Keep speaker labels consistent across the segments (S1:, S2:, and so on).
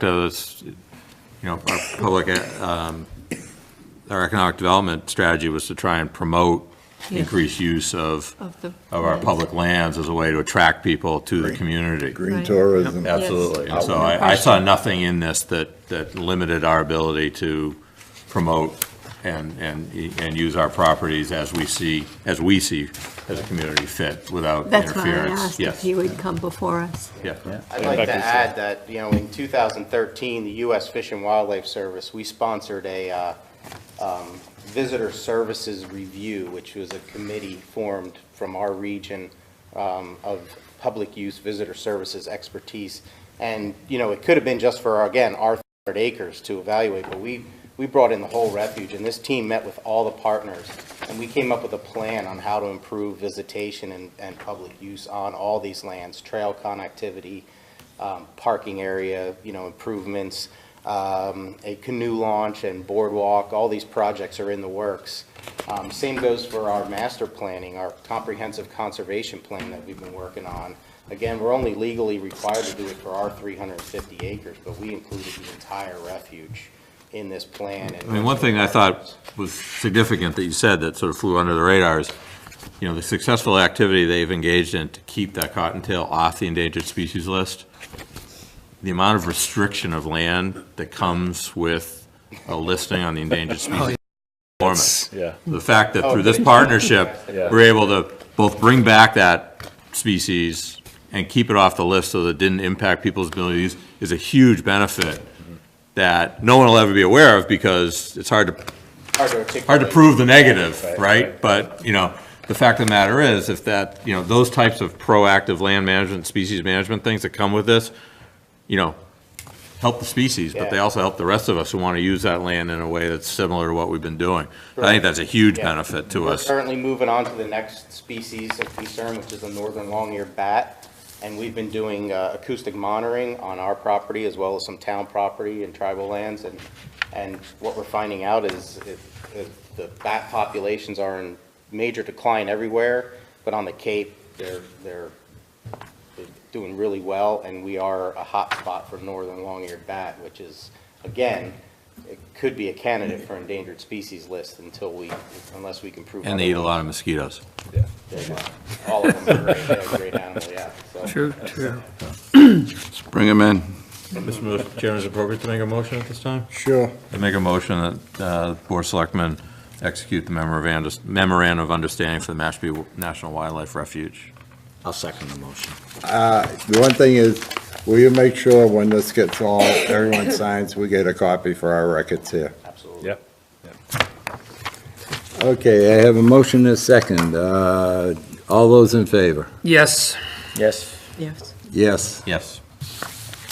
S1: to this, you know, our public, um, our economic development strategy was to try and promote
S2: Yeah.
S1: increased use of,
S2: Of the-
S1: of our public lands as a way to attract people to the community.
S2: Right.
S3: Green tourism.
S1: Absolutely. And so I, I saw nothing in this that, that limited our ability to promote and, and, and use our properties as we see, as we see as a community fit without
S2: That's why I
S1: interference.
S2: asked if he
S1: Yes,
S2: would come before us.
S1: yeah.
S4: I'd like to add that, you know, in 2013, the U.S. Fish and Wildlife Service, we sponsored a uh, um, Visitor Services Review, which was a committee formed from our region um, of public use visitor services expertise. And, you know, it could have been just for, again, our 300 acres to evaluate, but we, we brought in the whole refuge, and this team met with all the partners, and we came up with a plan on how to improve visitation and, and public use on all these lands, trail connectivity, um, parking area, you know, improvements, um, a canoe launch and boardwalk, all these projects are in the works. Um, Same goes for our master planning, our comprehensive conservation plan that we've been working on. Again, we're only legally required to do it for our 350 acres, but we included the entire refuge in this plan.
S1: I mean, one thing I thought was significant that you said that sort of flew under the radar is, you know, the successful activity they've engaged in to keep that cottontail off the endangered species list, the amount of restriction of land that comes with a listing on the endangered species format.
S5: Yeah,
S1: The fact that through this
S4: Oh, good.
S1: partnership,
S5: Yeah.
S1: we're able to both bring back that species and keep it off the list so that it didn't impact people's abilities is a huge benefit
S5: Mm-hmm.
S1: that no one will ever be aware of because it's hard to,
S4: Hard to articulate.
S1: hard to prove the negative,
S5: Right,
S1: right?
S5: right.
S1: But, you know, the fact of the matter is, if that, you know, those types of proactive land management, species management things that come with this, you know, help the species, but they
S4: Yeah.
S1: also help the rest of us who want to use that land in a way that's similar to what we've been doing. I think that's a huge
S4: Yeah.
S1: benefit to
S4: We're
S1: us.
S4: currently moving on to the next species of concern, which is the northern long-eared bat. And we've been doing uh, acoustic monitoring on our property as well as some town property and tribal lands. And, and what we're finding out is it- it- the bat populations are in major decline everywhere, but on the Cape, they're, they're they're doing really well, and we are a hot spot for northern long-eared bat, which is, again, it could be a candidate for endangered species list until we, unless we can prove.
S1: And they eat a lot of mosquitoes.
S5: yeah.
S4: otherwise. All of them are great, they're a great animal, yeah, so.
S6: True, true.
S3: Bring them in.
S1: Mr. Chairman, is it appropriate to make a motion at this time?
S3: Sure.
S1: I make a motion that uh, the Board of Selectmen execute the memorandum memorandum of understanding for the Mashpee National Wildlife Refuge.
S7: I'll second the motion.
S3: The one thing is, will you make sure when this gets all, everyone signs, we get a copy for our records here?
S4: Absolutely.
S5: Yep.
S3: Okay, I have a motion and a second. Uh, All those in favor?
S6: Yes.
S7: Yes.
S2: Yes.
S3: Yes.
S1: Yes.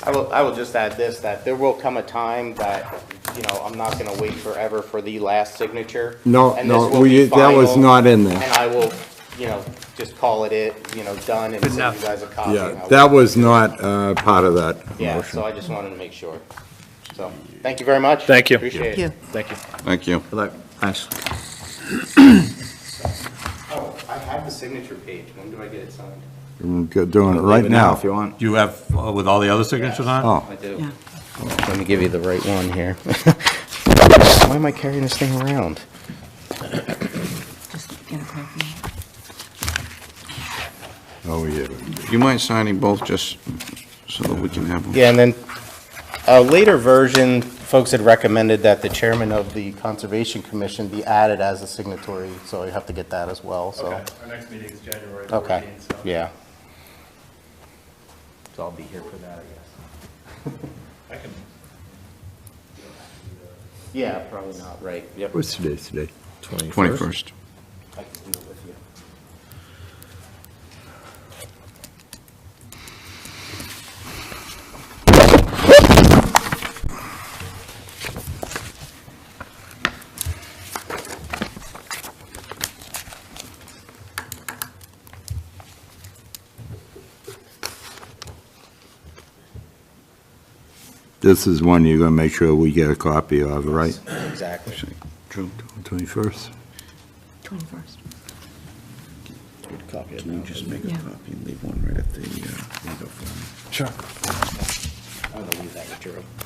S4: I will, I will just add this, that there will come a time that, you know, I'm not gonna wait forever for the last signature.
S3: No,
S4: and
S3: no,
S4: this will
S3: we-
S4: be
S3: that was
S4: final,
S3: not in there.
S4: And I will, you know, just call it it, you know, done, and send you guys a copy. and I
S3: Yeah,
S4: will-
S3: that was not uh, part of that
S4: Yeah,
S3: motion.
S4: so I just wanted to make sure. So, thank you very much.
S5: Thank you.
S4: Appreciate
S2: Yeah.
S4: it.
S5: Thank you.
S3: Thank you.
S7: Thanks.
S4: Oh, I have the signature page. When do I get it signed?
S3: Doing it right now.
S7: If you want.
S1: Do you have, uh, with all the other signatures on?
S3: Oh.
S4: I do. Oh,
S2: Yeah.
S4: Let me give you the right one here. Why am I carrying this thing around?
S2: Just get a copy.
S3: Oh, yeah.
S8: You mind signing both, just so that we can have them?
S4: Yeah, and then a later version, folks had recommended that the chairman of the Conservation Commission be added as a signatory, so you have to get that as well, so.
S9: Okay, our next meeting is January
S4: Okay,
S9: 14th, so.
S4: yeah. So I'll be here for that, I guess.
S9: I can
S4: Yeah, probably not, right, yep.
S3: What's today, today?
S8: 21st.
S4: I can do it with you.
S3: This is one you're going to make sure we get a copy of, right?
S4: Exactly.
S3: June 21st?
S2: 21st.
S7: Copy it
S8: Can you
S7: now.
S8: just make a
S2: Yeah.
S8: copy and leave one right at the uh, window for me?
S7: Sure. I'm gonna leave that with Drew.